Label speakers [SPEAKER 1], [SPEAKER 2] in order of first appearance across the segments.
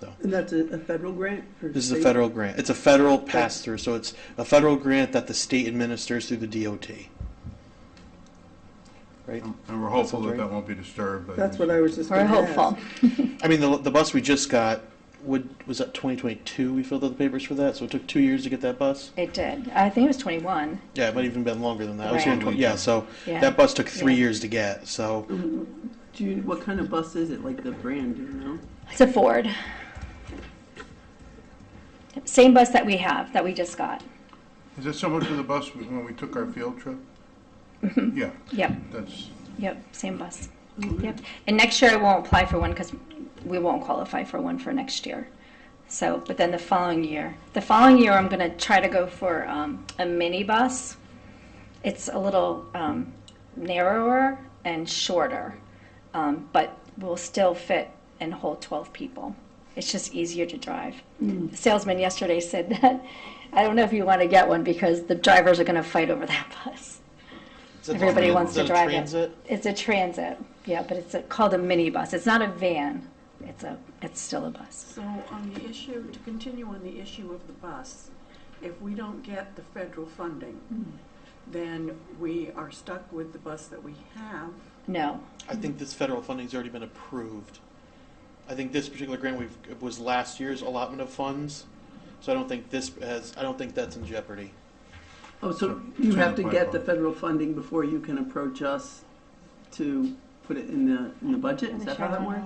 [SPEAKER 1] though.
[SPEAKER 2] And that's a, a federal grant for
[SPEAKER 1] This is a
[SPEAKER 2] state?
[SPEAKER 1] federal grant. It's a federal pass through, so it's a federal grant that the state administers through the DOT. Right?
[SPEAKER 3] And and we're hopeful
[SPEAKER 1] That's
[SPEAKER 3] that
[SPEAKER 1] right.
[SPEAKER 3] that won't be disturbed. but
[SPEAKER 2] That's what I was just
[SPEAKER 4] We're
[SPEAKER 2] going to ask.
[SPEAKER 4] hopeful.
[SPEAKER 1] I mean, the, the bus we just got would was that 2022. We filled out the papers for that, so it took two years to get that bus.
[SPEAKER 4] It did. I think it was 21.
[SPEAKER 1] Yeah, it might even been longer than that. I was
[SPEAKER 4] Right.
[SPEAKER 1] here in 20, yeah, so
[SPEAKER 4] Yeah.
[SPEAKER 1] that bus took three
[SPEAKER 4] Yeah.
[SPEAKER 1] years to get. So
[SPEAKER 2] Mm-hmm. Do you, what kind of bus is it, like the brand, do you know?
[SPEAKER 4] It's a Ford. Same bus that we have, that we just got.
[SPEAKER 3] Is that similar to the bus we- when we took our field trip?
[SPEAKER 2] Mm-hmm.
[SPEAKER 3] Yeah,
[SPEAKER 4] Yep,
[SPEAKER 3] that's,
[SPEAKER 4] yep, same bus. Yep. And next year I won't apply for one because we won't qualify for one for next year. So, but then the following year, the following year I'm gonna try to go for um, a mini bus. It's a little um, narrower and shorter, um, but will still fit and hold 12 people. It's just easier to drive. The salesman yesterday said that. I don't know if you want to get one because the drivers are going to fight over that bus. Everybody wants to drive it. It's a transit, yeah, but it's a- called a minibus. It's not a van. It's a, it's still a bus.
[SPEAKER 5] So on the issue, to continue on the issue of the bus, if we don't get the federal funding, then we are stuck with the bus that we have.
[SPEAKER 4] No,
[SPEAKER 1] I think this federal funding's already been approved. I think this particular grant we've, was last year's allotment of funds, so I don't think this has, I don't think that's in jeopardy.
[SPEAKER 2] Oh, so
[SPEAKER 3] So-
[SPEAKER 2] you
[SPEAKER 3] so
[SPEAKER 2] have to
[SPEAKER 3] the
[SPEAKER 2] get the
[SPEAKER 3] pipeline.
[SPEAKER 2] federal funding before you can approach us to put it in the, in the budget? Is that how that works?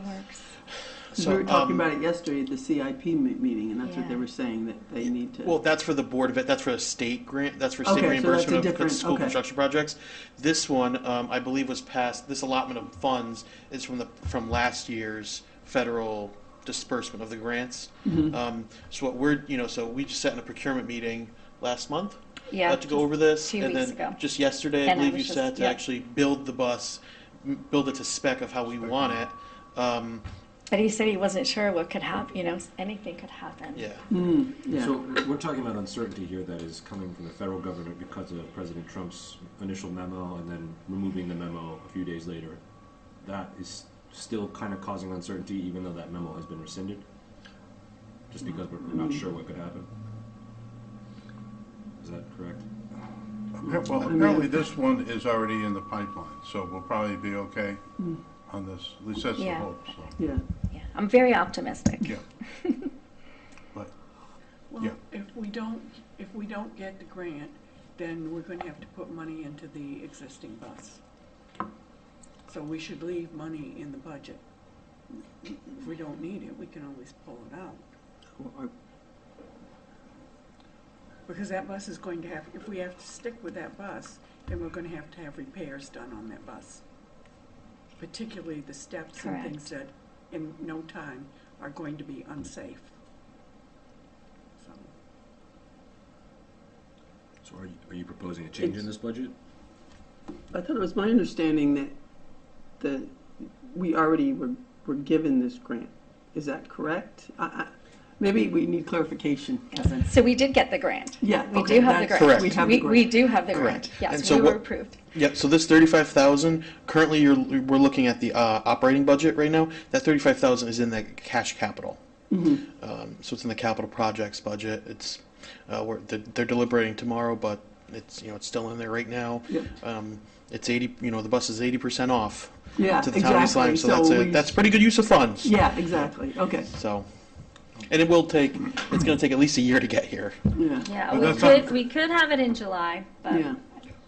[SPEAKER 2] Because
[SPEAKER 1] So
[SPEAKER 2] we were talking
[SPEAKER 1] um,
[SPEAKER 2] about it yesterday at the CIP me- meeting, and that's what they
[SPEAKER 4] Yeah.
[SPEAKER 2] were saying, that they need to.
[SPEAKER 1] Well, that's for the Board of Ed, that's for a state grant, that's for state
[SPEAKER 2] Okay, so that's a
[SPEAKER 1] reimbursement of the
[SPEAKER 2] different-
[SPEAKER 1] school
[SPEAKER 2] okay.
[SPEAKER 1] construction projects. This one, um, I believe was passed, this allotment of funds is from the, from last year's federal disbursement of the grants.
[SPEAKER 2] Mm-hmm.
[SPEAKER 1] Um, so what we're, you know, so we just sat in a procurement meeting last month.
[SPEAKER 4] Yeah,
[SPEAKER 1] Had to go
[SPEAKER 4] just
[SPEAKER 1] over this,
[SPEAKER 4] two
[SPEAKER 1] and
[SPEAKER 4] weeks
[SPEAKER 1] then
[SPEAKER 4] ago.
[SPEAKER 1] just yesterday, I
[SPEAKER 4] And I
[SPEAKER 1] believe you
[SPEAKER 4] was just-
[SPEAKER 1] said to
[SPEAKER 4] yeah.
[SPEAKER 1] actually build the bus, m- build it to spec of how we want it. Um,
[SPEAKER 4] But he said he wasn't sure what could happen, you know, anything could happen.
[SPEAKER 1] yeah,
[SPEAKER 2] Hmm, yeah.
[SPEAKER 6] So we're talking about uncertainty here that is coming from the federal government because of President Trump's initial memo and then removing the memo a few days later. That is still kind of causing uncertainty, even though that memo has been rescinded, just because we're we're not sure what could happen. Is that correct?
[SPEAKER 3] appa- well, apparently this one is already in the pipeline, so we'll probably be okay on this. At least that's the
[SPEAKER 4] Yeah.
[SPEAKER 3] hope, so,
[SPEAKER 2] Yeah.
[SPEAKER 4] Yeah, I'm very optimistic.
[SPEAKER 3] yeah. But,
[SPEAKER 5] Well,
[SPEAKER 3] Yeah.
[SPEAKER 5] if we don't, if we don't get the grant, then we're going to have to put money into the existing bus. So we should leave money in the budget. If we don't need it, we can always pull it out. Because that bus is going to have, if we have to stick with that bus, then we're gonna have to have repairs done on that bus. Particularly the steps and things that in no time are going to be unsafe. So,
[SPEAKER 6] So are you, are you proposing a change in this budget?
[SPEAKER 2] I thought it was my understanding that, that we already were, were given this grant. Is that correct? I, I, maybe we need clarification, Kevin.
[SPEAKER 4] So we did get the grant.
[SPEAKER 2] Yeah,
[SPEAKER 4] We
[SPEAKER 2] okay,
[SPEAKER 4] do have the
[SPEAKER 2] that's-
[SPEAKER 4] grant.
[SPEAKER 2] we
[SPEAKER 4] We,
[SPEAKER 2] have the
[SPEAKER 4] we
[SPEAKER 2] grant.
[SPEAKER 4] do have the grant.
[SPEAKER 1] Correct. And
[SPEAKER 4] Yes,
[SPEAKER 1] so
[SPEAKER 4] we were
[SPEAKER 1] what-
[SPEAKER 4] approved.
[SPEAKER 1] Yep, so this thirty-five thousand, currently you're, we're looking at the, uh, operating budget right now, that thirty-five thousand is in the cash capital.
[SPEAKER 2] Mm-hmm.
[SPEAKER 1] Um, so it's in the capital projects budget, it's, uh, we're, they're they're deliberating tomorrow, but it's, you know, it's still in there right now.
[SPEAKER 2] Yep.
[SPEAKER 1] Um, it's eighty, you know, the bus is eighty percent off
[SPEAKER 2] Yeah,
[SPEAKER 1] to the town of East Lyme,
[SPEAKER 2] exactly.
[SPEAKER 1] so that's a,
[SPEAKER 2] we-
[SPEAKER 1] that's pretty good use of funds.
[SPEAKER 2] Yeah, exactly. Okay,
[SPEAKER 1] So, and it will take, it's gonna take at least a year to get here.
[SPEAKER 2] yeah.
[SPEAKER 4] Yeah,
[SPEAKER 3] But
[SPEAKER 4] we
[SPEAKER 3] that's
[SPEAKER 4] could,
[SPEAKER 3] not-
[SPEAKER 4] we could have it in July,
[SPEAKER 2] Yeah,
[SPEAKER 4] but,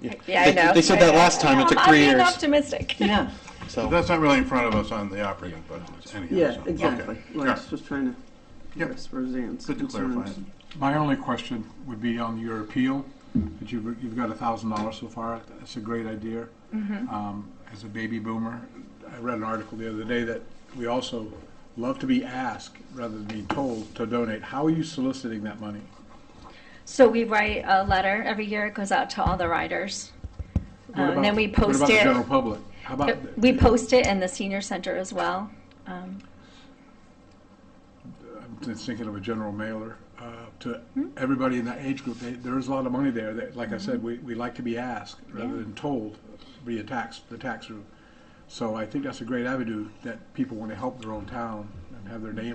[SPEAKER 4] yeah, I
[SPEAKER 1] They-
[SPEAKER 4] know.
[SPEAKER 1] They said
[SPEAKER 4] I
[SPEAKER 1] that
[SPEAKER 4] know.
[SPEAKER 1] last time, it took
[SPEAKER 4] I'm-
[SPEAKER 1] three
[SPEAKER 4] I'm being
[SPEAKER 1] years,
[SPEAKER 4] optimistic.
[SPEAKER 2] yeah,
[SPEAKER 1] so.
[SPEAKER 3] but that's not really in front of us on the operating budget anyhow. so-
[SPEAKER 2] yeah,
[SPEAKER 3] okay.
[SPEAKER 2] exactly. Well, I
[SPEAKER 3] Yeah.
[SPEAKER 2] was just trying to
[SPEAKER 3] Yep.
[SPEAKER 2] address Roseanne's
[SPEAKER 3] Good to clarify
[SPEAKER 2] concerns.
[SPEAKER 3] it.
[SPEAKER 7] My only question would be on your appeal, that you've, you've got a thousand dollars so far, that's a great idea.
[SPEAKER 4] Mm-hmm.
[SPEAKER 7] Um, As a baby boomer, I read an article the other day that we also love to be asked rather than being told to donate. How are you soliciting that money?
[SPEAKER 4] So we write a letter every year. It goes out to all the riders.
[SPEAKER 7] What
[SPEAKER 4] Um, and then
[SPEAKER 7] about-
[SPEAKER 4] we post
[SPEAKER 7] What about the general
[SPEAKER 4] it.
[SPEAKER 7] public? How about,
[SPEAKER 4] We post it in the senior center as well. Um,
[SPEAKER 7] I'm just thinking of a general mailer uh, to everybody in that age group. They- There is a lot of money there that, like I said, we, we like to be asked rather than told via tax, the tax route. So I think that's a great avenue that people want to help their own town and have their name